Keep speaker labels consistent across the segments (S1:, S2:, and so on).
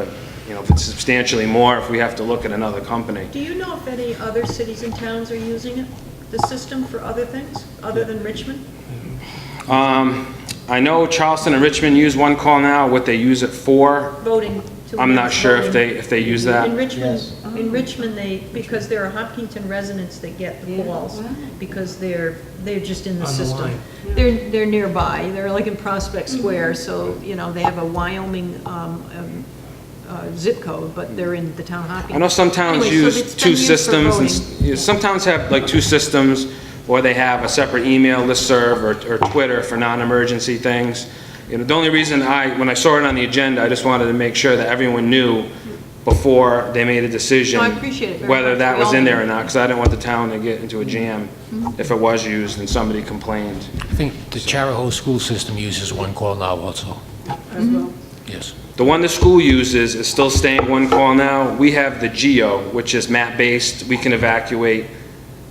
S1: you know, if it's substantially more, if we have to look at another company.
S2: Do you know if any other cities and towns are using it, the system for other things, other than Richmond?
S1: Um, I know Charleston and Richmond use One Call Now, what they use it for,
S2: Voting to...
S1: I'm not sure if they,
S2: voting.
S1: if they use
S2: In
S1: that.
S2: Richmond, uh-huh. in Richmond, they, because there are Hopkinton residents that get the
S3: Yeah.
S2: calls, because they're, they're just in the
S4: On the
S2: system.
S4: line.
S2: They're, they're nearby, they're like in Prospect Square, so, you know, they have a Wyoming um, um, uh, zip code, but they're in the town of Hopkinton.
S1: I know some towns
S2: Anyway, so
S1: use
S2: it's been
S1: two
S2: used for
S1: systems, and,
S2: voting.
S1: s- you know, some towns have like two systems, or they have a separate email listserv or, or Twitter for non-emergency things. You know, the only reason I, when I saw it on the agenda, I just wanted to make sure that everyone knew before they made a decision.
S2: No, I appreciate it very
S1: Whether
S2: much.
S1: that
S2: We
S1: was
S2: all Mm-hmm.
S1: in there
S2: need
S1: or
S2: it.
S1: not, because I didn't want the town to get into a jam if it was used and somebody complained.
S4: I think the Charahoe school system uses one call now also.
S3: as well.
S4: Yes.
S1: The one the school uses is still staying one call now. We have the GEO, which is map-based. We can evacuate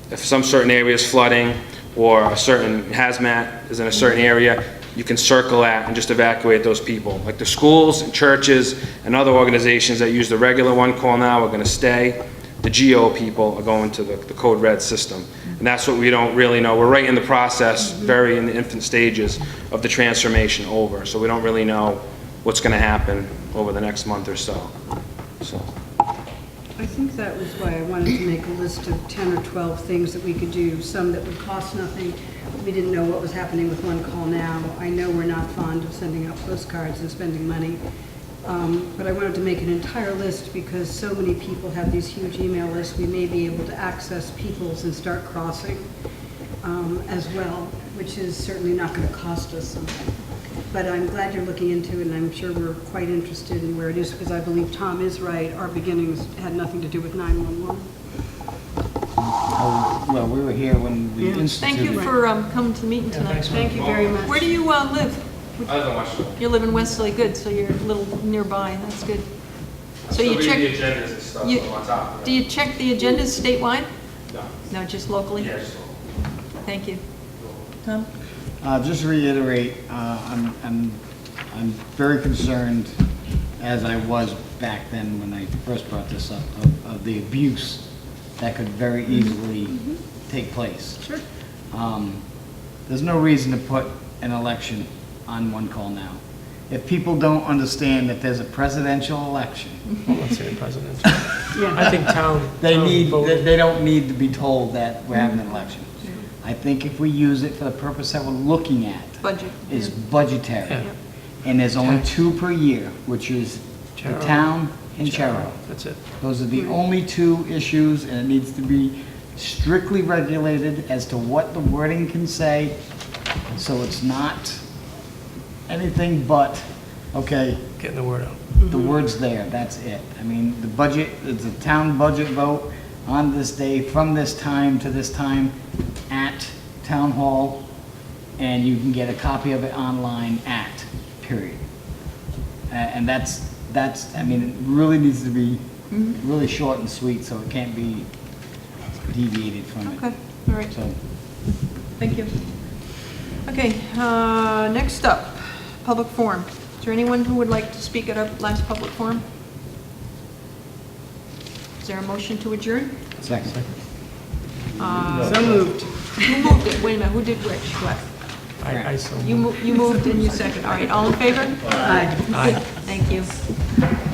S1: if some certain area is flooding or a certain hazmat is in a certain area, you can circle that and just evacuate those people. Like the schools and churches and other organizations that use the regular one call now are going to stay. The GEO people are going to the the code red system. And that's what we don't really know. We're right in the process, very in the infant stages of the transformation over. So we don't really know what's going to happen over the next month or so. So,
S3: I think that was why I wanted to make a list of 10 or 12 things that we could do, some that would cost nothing. We didn't know what was happening with One Call Now. I know we're not fond of sending out postcards and spending money, Um, but I wanted to make an entire list because so many people have these huge email lists. We may be able to access people's and start crossing um, as well, which is certainly not going to cost us something. But I'm glad you're looking into it, and I'm sure we're quite interested in where it is, because I believe Tom is right, our beginnings had nothing to do with 911.
S5: Oh, Well, we were here when we instituted.
S2: Thank you for um, coming to the meeting tonight.
S3: Thank you very much.
S2: Where do you uh, live?
S1: I live in Westchester.
S2: You live in Wesley, good, so you're a little nearby, that's good. So you check,
S1: agendas and stuff
S2: you-
S1: on top of
S2: do you check the agendas statewide?
S1: No.
S2: No, just locally? Thank you. Tom?
S5: Uh, Just to reiterate, uh, I'm, I'm, I'm very concerned, as I was back then when I first brought this up, of, of the abuse that could very easily take place. Sure. There's no reason to put an election on one call now. If people don't understand that there's a presidential election,
S6: Let's say presidential. I think town.
S5: They
S6: town
S5: need,
S6: vote-
S5: they they don't need to be told that we're having an election. I think if we use it for the purpose that we're looking at,
S2: Budget.
S5: is
S6: Yeah.
S5: budgetary. And there's only two per year, which is the
S6: Charo.
S5: town and Charo.
S6: That's it.
S5: Those are the only two issues, and it needs to be strictly regulated as to what the wording can say, so it's not anything but, okay,
S6: Getting the word out.
S5: the word's there, that's it. I mean, the budget, it's a town budget vote on this day, from this time to this time, at Town Hall, and you can get a copy of it online at, period. A- And that's, that's, I mean, it really needs to be really short and sweet, so it can't be deviated from it.
S2: Okay, all right,
S5: So,
S2: thank you. Okay, uh, next up, public forum. Is there anyone who would like to speak at our last public forum? Is there a motion to adjourn?
S5: second.
S2: So moved. Who moved it? Wait a minute, who did which, what?
S6: I, I so.
S2: You mo- you moved and you seconded, all right, all in favor? Aye. Thank you.